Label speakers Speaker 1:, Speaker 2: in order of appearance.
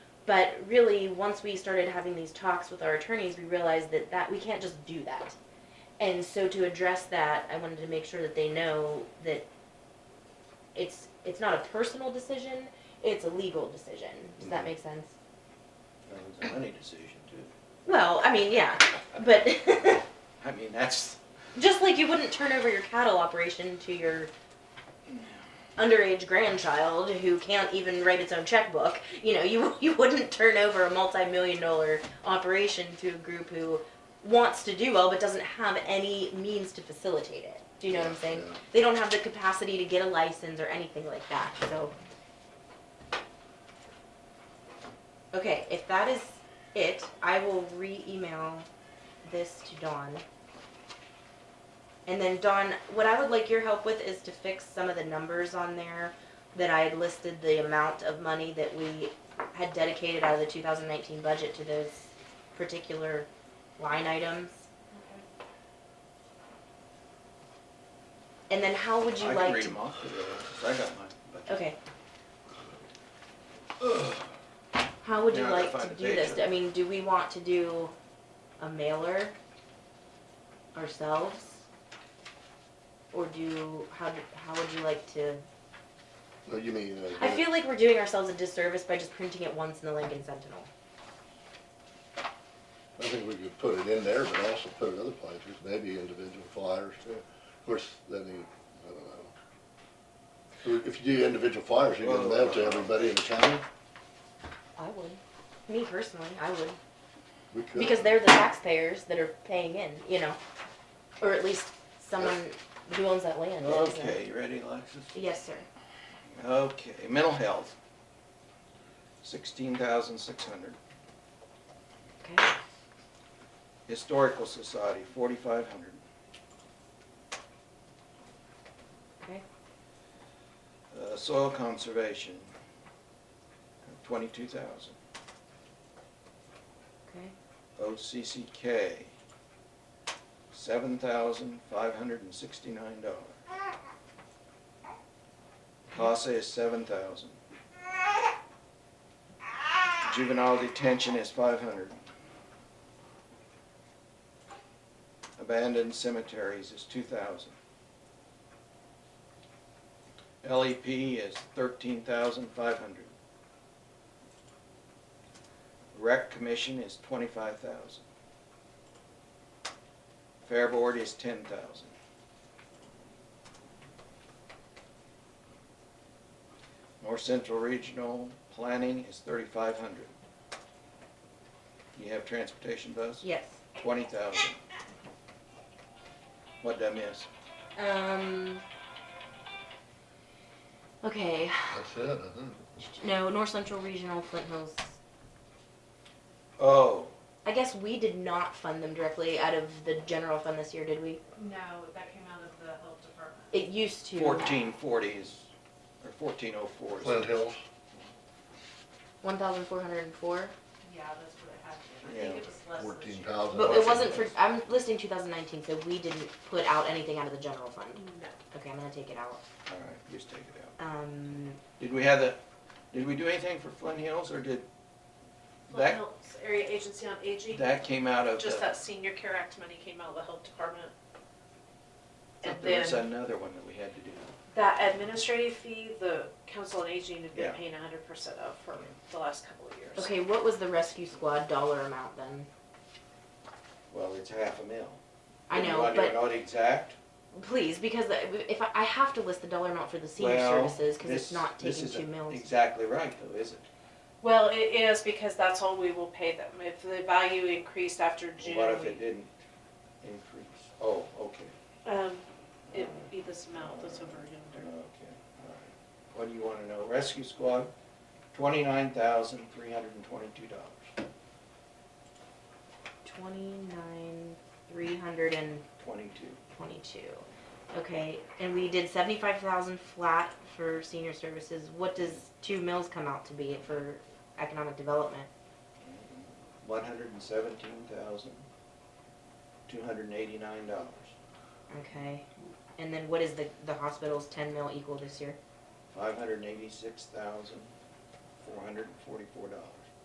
Speaker 1: But really, once we started having these talks with our attorneys, we realized that that we can't just do that. And so to address that, I wanted to make sure that they know that it's it's not a personal decision; it's a legal decision. Does that make sense?
Speaker 2: That was a money decision too.
Speaker 1: Well, I mean, yeah, but
Speaker 2: I mean, that's,
Speaker 1: just like you wouldn't turn over your cattle operation to your underage grandchild who can't even write its own checkbook, you know, you you wouldn't turn over a multi-million dollar operation to a group who wants to do well but doesn't have any means to facilitate it. Do you know what I'm saying?
Speaker 2: Yeah.
Speaker 1: They don't have the capacity to get a license or anything like that. So Okay, if that is it, I will re-email this to Dawn. And then Dawn, what I would like your help with is to fix some of the numbers on there that I had listed the amount of money that we had dedicated out of the two thousand nineteen budget to those particular line items. And then how would you
Speaker 2: I can
Speaker 1: like
Speaker 2: read
Speaker 1: to?
Speaker 2: them off to you, 'cause I got mine. but-
Speaker 1: Okay. How would you
Speaker 2: Now I gotta
Speaker 1: like to
Speaker 2: find the
Speaker 1: do
Speaker 2: page.
Speaker 1: this? I mean, do we want to do a mailer ourselves? Or do, how, do- how would you like to?
Speaker 3: No, you mean, uh,
Speaker 1: I feel like we're doing ourselves a disservice by just printing it once in the Lincoln Sentinel.
Speaker 3: I think we could put it in there, but also put it other places, maybe individual flyers too. Of course, then you, I don't know. If you do individual flyers, you give them to everybody in the county?
Speaker 1: I would. Me personally, I would.
Speaker 3: We could.
Speaker 1: Because they're the taxpayers that are paying in, you know? Or at least someone who owns that land. that isn't.
Speaker 2: Okay, you ready, Alexis?
Speaker 1: Yes, sir.
Speaker 2: Okay, mental health. Sixteen thousand six hundred.
Speaker 1: Okay.
Speaker 2: Historical society, forty-five hundred.
Speaker 1: Okay.
Speaker 2: Uh, soil conservation, twenty-two thousand.
Speaker 1: Okay.
Speaker 2: OCCK, seven thousand five hundred and sixty-nine dollars. CASA is seven thousand. Juvenile detention is five hundred. Abandoned cemeteries is two thousand. LEP E is thirteen thousand five hundred. Rec commission is twenty-five thousand. Fair board is ten thousand. North Central Regional Planning is thirty-five hundred. You have transportation bus,
Speaker 1: Yes.
Speaker 2: twenty thousand. What did I miss?
Speaker 1: Um. Okay.
Speaker 3: That's it, I think.
Speaker 1: No, North Central Regional Flint Hills.
Speaker 2: Oh,
Speaker 1: I guess we did not fund them directly out of the general fund this year, did we?
Speaker 4: No, that came out of the health department.
Speaker 1: It used to.
Speaker 2: fourteen forty is, or fourteen oh four is.
Speaker 3: Flint Hills,
Speaker 1: One thousand four hundred and four.
Speaker 4: Yeah, that's what it had to be. I think it was less this
Speaker 3: fourteen
Speaker 4: year.
Speaker 3: thousand.
Speaker 1: But it wasn't for, I'm listing two thousand nineteen, so we didn't put out anything out of the general fund.
Speaker 4: No.
Speaker 1: Okay, I'm gonna take it out.
Speaker 2: All right, just take it out.
Speaker 1: Um,
Speaker 2: Did we have the, did we do anything for Flint Hills, or did,
Speaker 4: Flint
Speaker 2: that,
Speaker 4: Hills Area Agency on Aging,
Speaker 2: that came out of the?
Speaker 4: just that Senior Care Act money came out of the health department. And
Speaker 2: There was
Speaker 4: then
Speaker 2: another one that we had to do.
Speaker 4: that administrative fee, the Council on Aging had
Speaker 2: Yeah.
Speaker 4: been paying hundred percent of for the last couple of years.
Speaker 1: okay, what was the rescue squad dollar amount then?
Speaker 2: Well, it's half a mil.
Speaker 1: I
Speaker 2: Do you
Speaker 1: know,
Speaker 2: want to
Speaker 1: but
Speaker 2: know it exact?
Speaker 1: please, because if I, I have to list the dollar amount for the senior
Speaker 2: Well,
Speaker 1: services, cause
Speaker 2: this-
Speaker 1: it's not
Speaker 2: this
Speaker 1: taking two
Speaker 2: isn't
Speaker 1: mills.
Speaker 2: Exactly right, though, is it?
Speaker 4: Well, it is because that's all we will pay them. If the value increased after June,
Speaker 2: What if it didn't increase? Oh, okay,
Speaker 4: um, it'd be this amount that's over
Speaker 2: okay,
Speaker 4: yonder.
Speaker 2: all right. What do you want to know? Rescue squad, twenty-nine thousand, three hundred and twenty-two dollars,
Speaker 1: Twenty-nine, three hundred and
Speaker 2: twenty-two.
Speaker 1: twenty-two. Okay, and we did seventy-five thousand flat for senior services. What does two mills come out to be for economic development?
Speaker 2: One hundred and seventeen thousand, two hundred and eighty-nine dollars.
Speaker 1: Okay, and then what is the, the hospital's ten mil equal this year?
Speaker 2: Five hundred and eighty-six thousand, four hundred and forty-four dollars.